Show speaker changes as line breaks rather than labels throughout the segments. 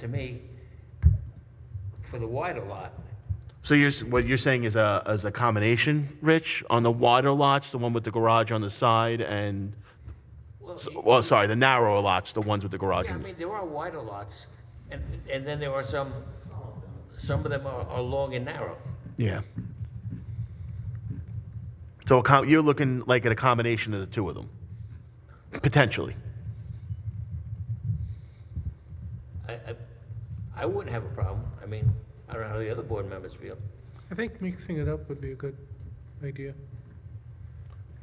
to me, for the wider lot,
So you're, s- what you're saying is a, is a combination, Rich, on the wider lots, the one with the garage on the side and, s- well, sorry, the narrower lots, the ones with the garage.
Yeah, I
on-
mean, there are wider lots, and, and then there are some, some of them are, are long and narrow.
Yeah. So a com- you're looking like at a combination of the two of them, potentially.
I, I, I wouldn't have a problem, I mean, I don't know how the other board members feel.
I think mixing it up would be a good idea.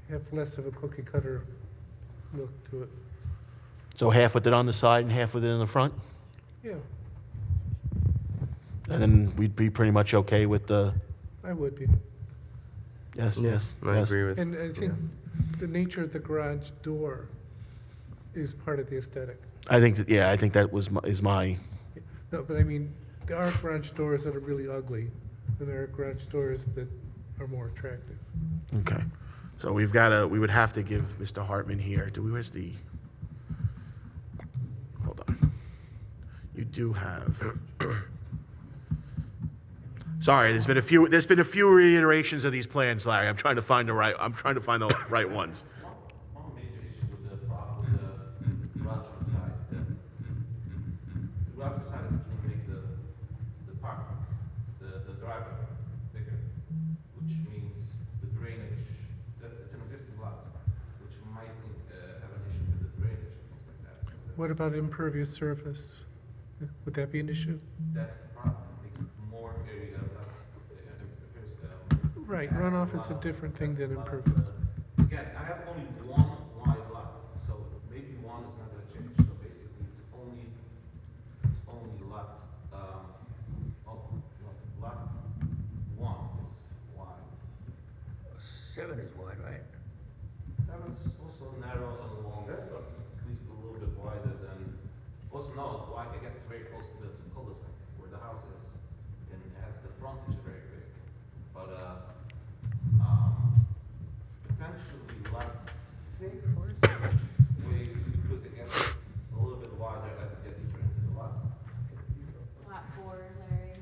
Have less of a cookie cutter look to it.
So half with it on the side and half with it in the front?
Yeah,
And then we'd be pretty much okay with the,
I would be.
yes, yes.
I
yes.
agree with.
And I think the nature of the garage door is part of the aesthetic.
I think, that- yeah, I think that was, my- is my,
No, but I mean, there are garage doors that are really ugly, and there are garage doors that are more attractive.
okay. So we've got to, we would have to give Mr. Hartman here, do we, where's the, hold on. You do have. Sorry, there's been a few, there's been a few reiterations of these plans, Larry. I'm trying to find the right, I'm trying to find the right ones.
One major issue with the problem with the garage on the side, that the garage on the side is to make the, the park, the, the driveway bigger, which means the drainage, that it's an existing lot, which might, uh, have an issue with the drainage and things like that. So
What
that's-
about impervious surface? Would that be an issue?
That's the problem, makes more area, less, uh, appears, um,
Right,
that's
runoff is a
lot.
different thing
That's
than
lot.
impervious.
Again, I have only one wide lot, so maybe one is not gonna change, so basically, it's only, it's only lot, um, oh, lot- lot one is wide.
Seven is wide, right?
Seven is also narrow and longer, but at least a little bit wider than, also no, wide, it gets very close to this cul-de-sac where the house is, and it has the frontage very big. But, uh, um, potentially lot six, way, because it gets a little bit wider as you get deeper into the lot.
Lot four, Larry.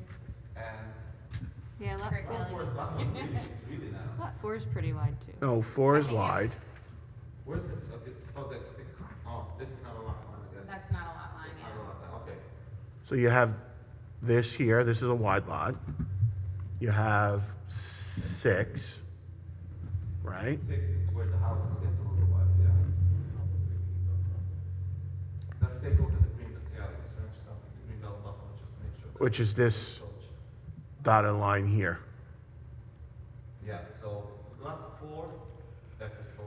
And,
Yeah, lot
Great
four.
of course, that was really, really narrow.
Lot four is pretty wide too.
No, four is wide.
Where is it? Okay, oh, that, oh, this is not a lot line, I guess.
That's not a lot line,
It's not a
yeah.
lot line, okay.
So you have this here, this is a wide lot. You have six, right?
Six is where the house is, gets a little wide, yeah. Let's take a look at the green, yeah, let's finish stuff, the green belt buckle, just to make sure. that
Which is
it's
this
approached.
dotted line here.
Yeah, so lot four, that is the,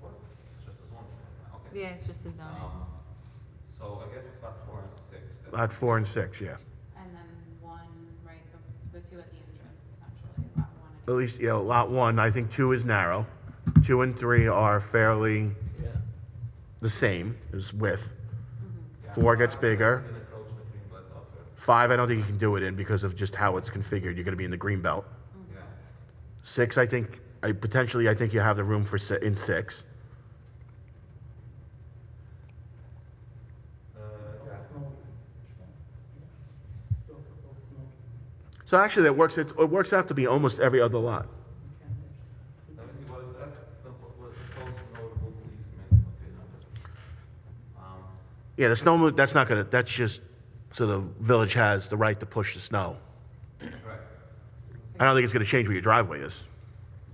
what's, it's just a zone, okay.
Yeah, it's just the zoning.
Um, so I guess it's lot four and six. that-
Lot four and six, yeah.
And then one, right, the, the two at the entrance essentially, lot one and
At least, you know, lot one, I think two is narrow. Two and three are fairly the same as width.
yeah.
Four gets
You
bigger.
can approach the green belt buffer,
Five, I don't think you can do it in because of just how it's configured. You're gonna be in the green belt.
yeah.
Six, I think, I potentially, I think you have the room for, si- in six.
Uh, yeah.
So actually, that works, it, it works out to be almost every other lot.
Let me see, what is that? The, what, what, proposed notable easement, okay, no, that's. Um,
Yeah, the snow, mo- that's not gonna, that's just, so the village has the right to push the snow.
correct.
I don't think it's gonna change where your driveway is,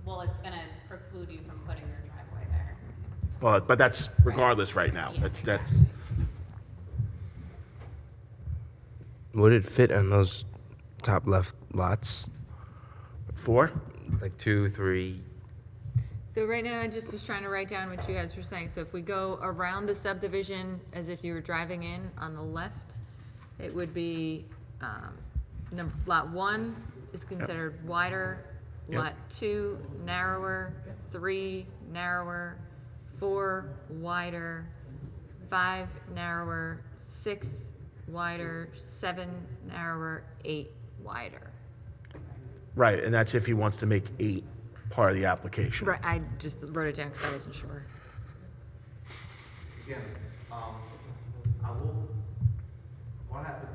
Well, it's gonna preclude you from putting your driveway there.
but, but that's regardless right now.
Yeah,
That's, that's,
exactly.
Would it fit on those top left lots?
four?
Like two, three?
So right now, I just was trying to write down what you guys were saying. So if we go around the subdivision as if you were driving in on the left, it would be, um, num lot one is considered wider,
Yep.
lot two narrower, three narrower, four wider, five narrower, six wider, seven narrower, eight wider.
Right, and that's if he wants to make eight part of the application.
Right, I just wrote it down because I wasn't sure.
Again, um, I will, what happens